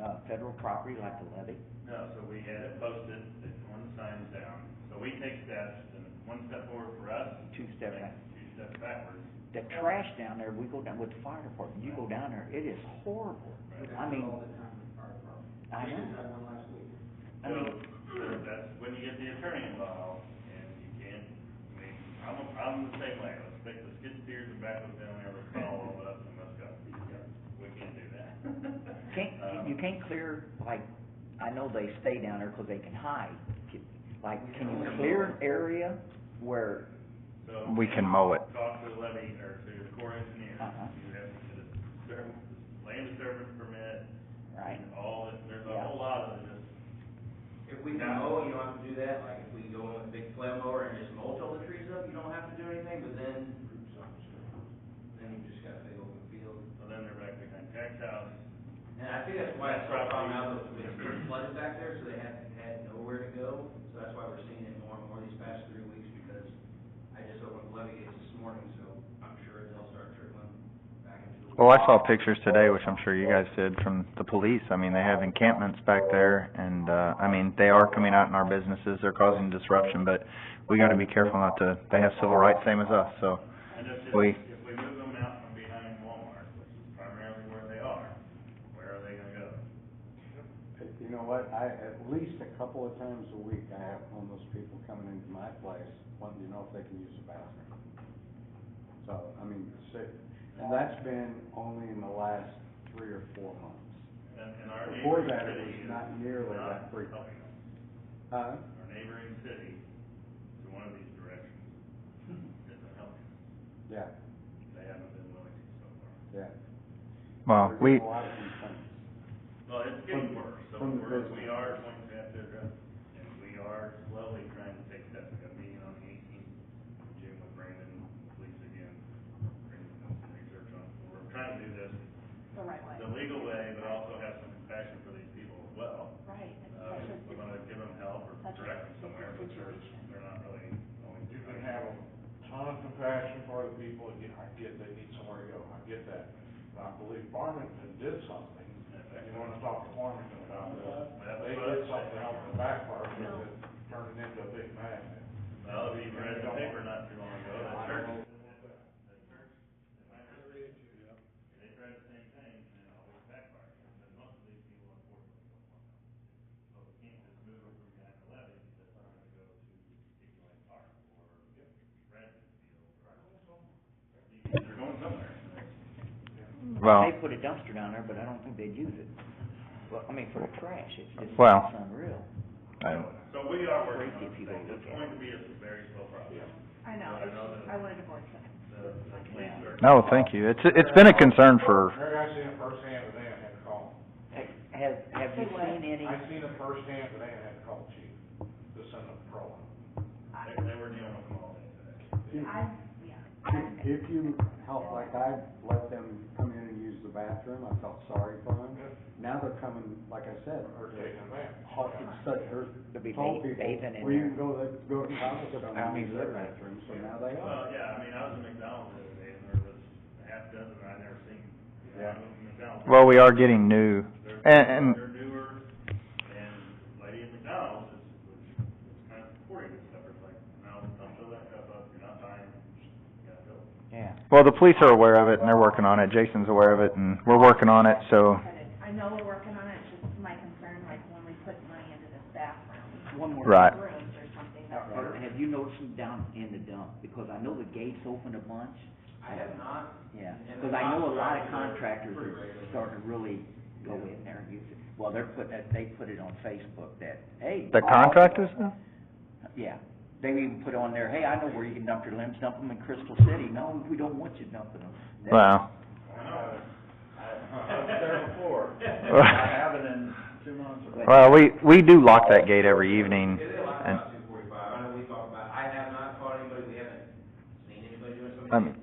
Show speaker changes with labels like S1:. S1: uh, federal property like a levy?
S2: No, so we had it posted, that one sign's down, so we take steps, and one step forward for us.
S1: Two step
S2: makes
S1: back.
S2: Two steps backwards.
S1: The trash down there, we go down with the fire department, you go down there, it is horrible.
S2: Right.
S1: I mean-
S3: All the time with fire department.
S1: I
S3: We
S1: know.
S3: just had one last week.
S1: I
S2: So,
S1: mean-
S2: so that's when you get the attorney involved, and you can't, I mean, I'm, I'm the same way, let's make the skid steers and back with them, and let's follow all up, and let's go. We can't do that.
S1: Can't, you can't clear, like, I know they stay down there because they can hide. Like, can you clear an area where,
S2: So.
S4: We can mow it.
S2: Talk to the levy, or to the core engineer,
S1: Uh-huh.
S2: you have to get a disturb- land disturbance permit,
S1: right?
S2: and all, this- there's a
S1: Yeah.
S2: whole lot of this.
S3: If we can mow, you don't have to do that, like, if we go in with a big flail mower and just mulch all the trees up, you don't have to do anything, but then. Then you just got a big open field.
S2: So then they're back behind tax house.
S3: And I think that's why it's so problem out that it's been flooded back there, so they had, had nowhere to go. So that's why we're seeing it more and more these past three weeks, because I just opened the levee gates this morning, so I'm sure they'll start trickling back into the.
S4: Well, Oh, I saw pictures today, which I'm sure you guys did, from the police. I mean, they have encampments back there, and, uh, I mean, they are coming out in our businesses, they're causing disruption, but we gotta be careful not to, they have civil rights same as us, so.
S2: And if, if
S4: We-
S2: if we move them out from behind Walmart, which is primarily where they are, where are they gonna go?
S5: You know what, I, at least a couple of times a week, I have homeless people coming into my place wanting to know if they can use the bathroom. So, I mean, sick, and that's been only in the last three or four months.
S2: And, and our
S5: Before
S2: neighboring
S5: that, it
S2: city
S5: was
S2: is
S5: not nearly
S2: not
S5: that frequent.
S2: helping us.
S5: Huh?
S2: Our neighboring city, to one of these directions, isn't helping.
S5: Yeah,
S2: They haven't been willing to so far.
S5: yeah.
S4: Well,
S5: There's
S4: we,
S5: a lot of complaints.
S2: Well, it's getting worse, so
S5: From the
S2: we're,
S5: business.
S2: we are going to have to address, it, and we are slowly trying to take steps. We've got a meeting on the eighteenth, Jim with Brandon, the police again, bringing some research on, we're trying to do this
S6: the right way.
S2: the legal way, but also have some compassion for these people as well.
S6: Right, it's
S2: Uh,
S6: such a,
S2: we're
S6: it's
S2: gonna give them help or
S6: such a
S2: direct them somewhere, but they're,
S6: situation.
S2: they're not really always.
S7: You can have a ton of compassion for the people, and I get they need somewhere to go, I get that. But I believe Farmington did something, and you wanna talk to Farmington about that. They did something out in the back part, of it that turned it into a big magnet.
S2: Well, if you read the paper not too long ago, that church. They tried the same thing, and it always backfired, because most of these people unfortunately don't want them. So we can't just move them from nine to eleven, that's not gonna go to Decoy Park or Brandon Field or. They're going somewhere.
S4: well.
S1: They put a dumpster down there, but I don't think they'd use it. Well, I mean, for the trash, it's just,
S4: Well-
S1: it's unreal.
S4: I-
S2: So we are working on
S1: Crazy
S2: things,
S1: people look
S2: it's
S1: at
S2: going to be a very slow process.
S6: I know,
S2: I know
S6: it's-
S2: that-
S6: I wanted to voice it.
S2: The, the police are.
S4: No, thank you. It's, it's been a concern for,
S7: Mary, I seen it firsthand today, and had to call.
S1: Ha- Have, have you
S6: Say what?
S1: seen any,
S7: I seen it firsthand today, and had to call chief to send a pro.
S2: They, they were dealing with them all day today.
S6: I, yeah.
S5: If- If you help, like I let them come in and use the bathroom, I felt sorry for them. Now they're coming, like I said,
S7: Or taking a van.
S5: hawking such, or
S1: They'll be
S5: told
S1: ba-
S5: people,
S1: bathing in
S5: well, you
S1: there."
S5: can go, to- go to college, but
S1: I
S5: I'm
S1: mean,
S5: use their
S1: literally.
S5: bathroom, so now they are.
S2: Well, yeah, I mean, I was at McDonald's the other day, and there was a half dozen I'd never seen. you know,
S5: Yeah.
S2: McDonald's.
S4: well, we are getting new,
S2: They're-
S4: and- and-
S2: They're newer, and lady at McDonald's is, was, was kind of supporting this stuff, it's like, no, don't fill that cup up, you're not buying, it. you gotta fill it.
S1: yeah.
S4: well, the police are aware of it and they're working on it. Jason's aware of it and we're working on it, so.
S6: I know we're working on it, it's just my concern, like, when we put money into this bathroom,
S1: One more.
S4: Right.
S6: rooms or something, that's.
S1: Or Have you noticed them down in the dump? Because I know the gates open a bunch,
S3: I have not,
S1: yeah.
S3: And
S1: Because I know a lot of
S3: contractors
S1: contractors
S3: are
S1: are starting to really go in there and use it. Well, they're putting, it- they put it on Facebook that, hey.
S4: The contractors?
S1: Yeah. They even put on there, hey, I know where you can dump your limbs, dump them in Crystal City. No, we don't want you dumping them. That-
S4: Wow.
S2: I know,
S7: I was there before.
S4: Well, we, we do lock that gate every evening
S3: Yeah, they lock
S4: and,
S3: about two forty-five, I know we talk about, I have not caught anybody, we haven't seen anybody doing
S4: I mean,
S3: something.